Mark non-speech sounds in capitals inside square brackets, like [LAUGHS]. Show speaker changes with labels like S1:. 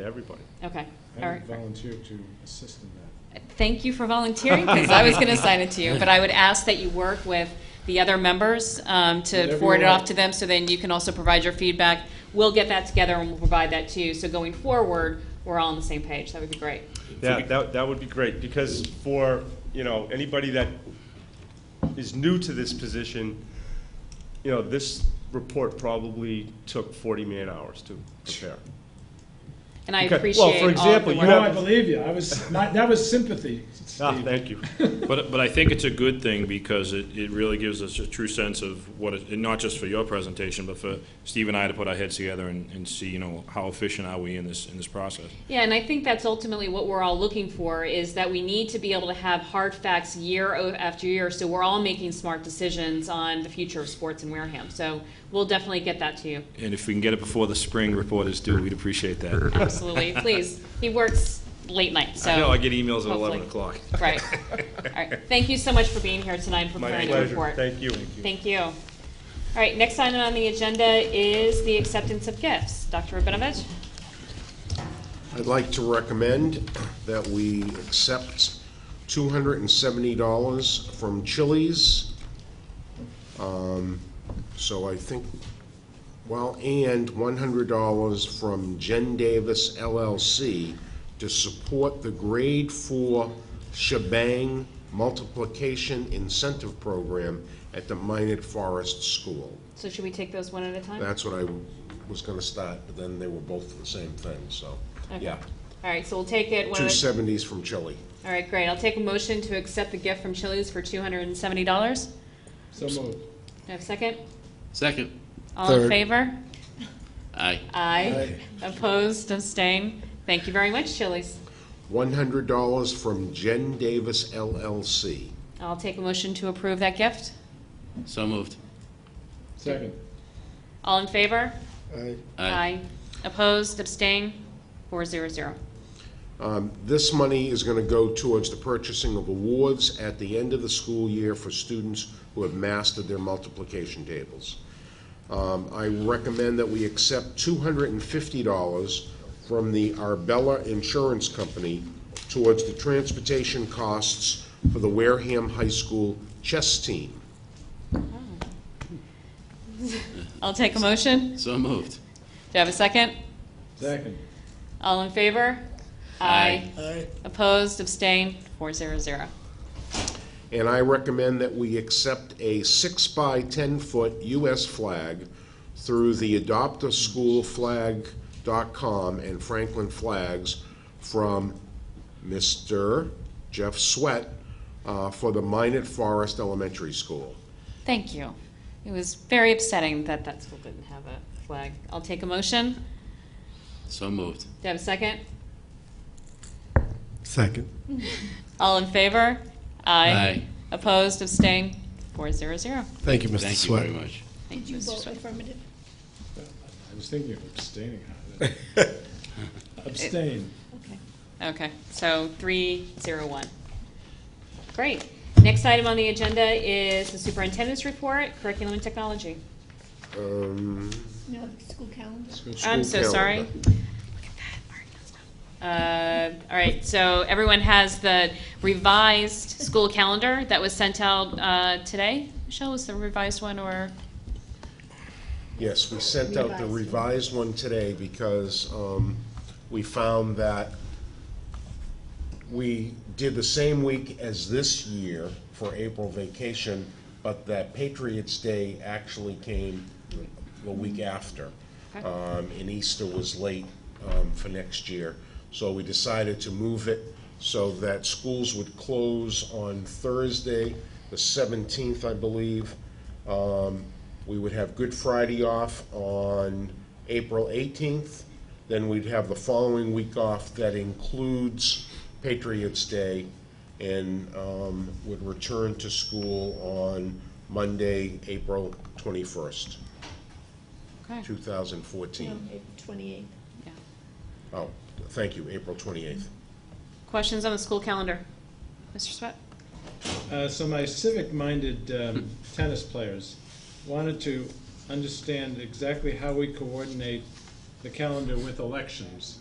S1: to everybody.
S2: Okay, all
S3: I
S2: right.
S3: would volunteer to assist in that.
S2: Thank you for volunteering, because I was going to sign it to you, but I would ask that you work with the other members um, to
S3: Whatever
S2: forward
S3: you
S2: it off
S3: want.
S2: to them, so then you can also provide your feedback. We'll get that together and we'll provide that to you, so going forward, we're all on the same page, that would be great.
S1: Yeah, that, that would be great, because for, you know, anybody that is new to this position, you know, this report probably took forty man hours to prepare.
S2: And I
S1: Okay, well,
S2: appreciate all
S1: for
S2: of
S1: example,
S2: the
S1: you
S2: work.
S1: have-
S3: No, I believe you. I was, that that was [LAUGHS] sympathy,
S1: Ah,
S3: Steve.
S1: thank you.
S4: But, but I think it's a good thing because it, it really gives us a true sense of what, it- and not just for your presentation, but for Steve and I to put our heads together and, and see, you know, how efficient are we in this, in this process?
S2: Yeah, and I think that's ultimately what we're all looking for, is that we need to be able to have hard facts year o- after year, so we're all making smart decisions on the future of sports in Wareham. So we'll definitely get that to you,
S4: And if we can get it before the spring report is due, we'd appreciate that.
S2: absolutely, please. He works late night, so.
S4: I know, I get emails at
S2: Hopefully.
S4: eleven o'clock.
S2: Right. All right. Thank you so much for being here tonight and
S1: My
S2: preparing the
S1: pleasure,
S2: report.
S1: thank you.
S2: Thank you. All right, next item on the agenda is the acceptance of gifts. Dr. Rabinovich?
S5: I'd like to recommend that we accept $270 from Chili's. Um, So I think, well, and $100 from Jen Davis LLC to support the Grade 4 Shebang Multiplication Incentive Program at the Minot Forest School.
S2: So should we take those one at a time?
S5: That's what I was going to start, but then they were both the same thing, so,
S2: Okay.
S5: yeah.
S2: All right, so we'll take it one
S5: Two
S2: at a.
S5: seventies from Chile.
S2: All right, great. I'll take a motion to accept the gift from Chili's for $270. Do
S3: So moved.
S2: I have a second?
S6: Second.
S2: All in favor?
S6: Aye.
S2: Aye. Opposed, abstain? Thank you very much, Chili's.
S5: One hundred dollars from Jen Davis LLC.
S2: I'll take a motion to approve that gift.
S6: So moved.
S3: Second.
S2: All in favor?
S6: Aye.
S2: Opposed, abstain, four zero zero.
S5: Um, This money is going to go towards the purchasing of awards at the end of the school year for students who have mastered their multiplication tables. Um, I recommend that we accept $250 from the Arbella Insurance Company towards the transportation costs for the Wareham High School chess team.
S2: I'll take a motion.
S6: So moved.
S2: Do I have a second?
S3: Second.
S2: All in favor?
S6: Aye.
S2: Opposed, abstain, four zero zero.
S5: And I recommend that we accept a six by ten foot US flag through the adoptaschoolflag.com and Franklin flags from Mr. Jeff Sweat uh, for the Minot Forest Elementary School.
S2: Thank you. It was very upsetting that that school didn't have a flag. I'll take a motion. Do
S6: So moved.
S2: I have a second?
S7: Second.
S2: All in favor?
S6: Aye.
S2: Opposed, abstain, four zero zero.
S7: Thank you, Mr.
S6: Thank you
S7: Sweat.
S6: very much.
S2: Thank you, Mr. Swift.
S8: affirmative?
S3: I was thinking of abstaining. Abstain.
S2: Okay, so three, zero, one. Great. Next item on the agenda is the superintendent's report, curriculum and technology.
S5: Um,
S8: No, the school calendar.
S2: I'm so
S5: school
S2: sorry.
S5: calendar.
S2: Uh, All right, so everyone has the revised school calendar that was sent out uh, today. Michelle, was the revised one or?
S5: Yes, we sent out the revised one today because um, we found that we did the same week as this year for April vacation, but that Patriots' Day actually came the week after.
S2: Okay.
S5: Um, And Easter was late um, for next year. So we decided to move it so that schools would close on Thursday, the 17th, I believe. Um, We would have Good Friday off on April 18th. Then we'd have the following week off that includes Patriots' Day and um, would return to school on Monday, April 21st,
S2: Okay.
S8: um,
S5: 2014.
S8: Twenty-eight.
S2: yeah.
S5: Oh, thank you, April 28th.
S2: Questions on the school calendar? Mr. Sweat?
S3: Uh, So my civic-minded um, tennis players wanted to understand exactly how we coordinate the calendar with elections.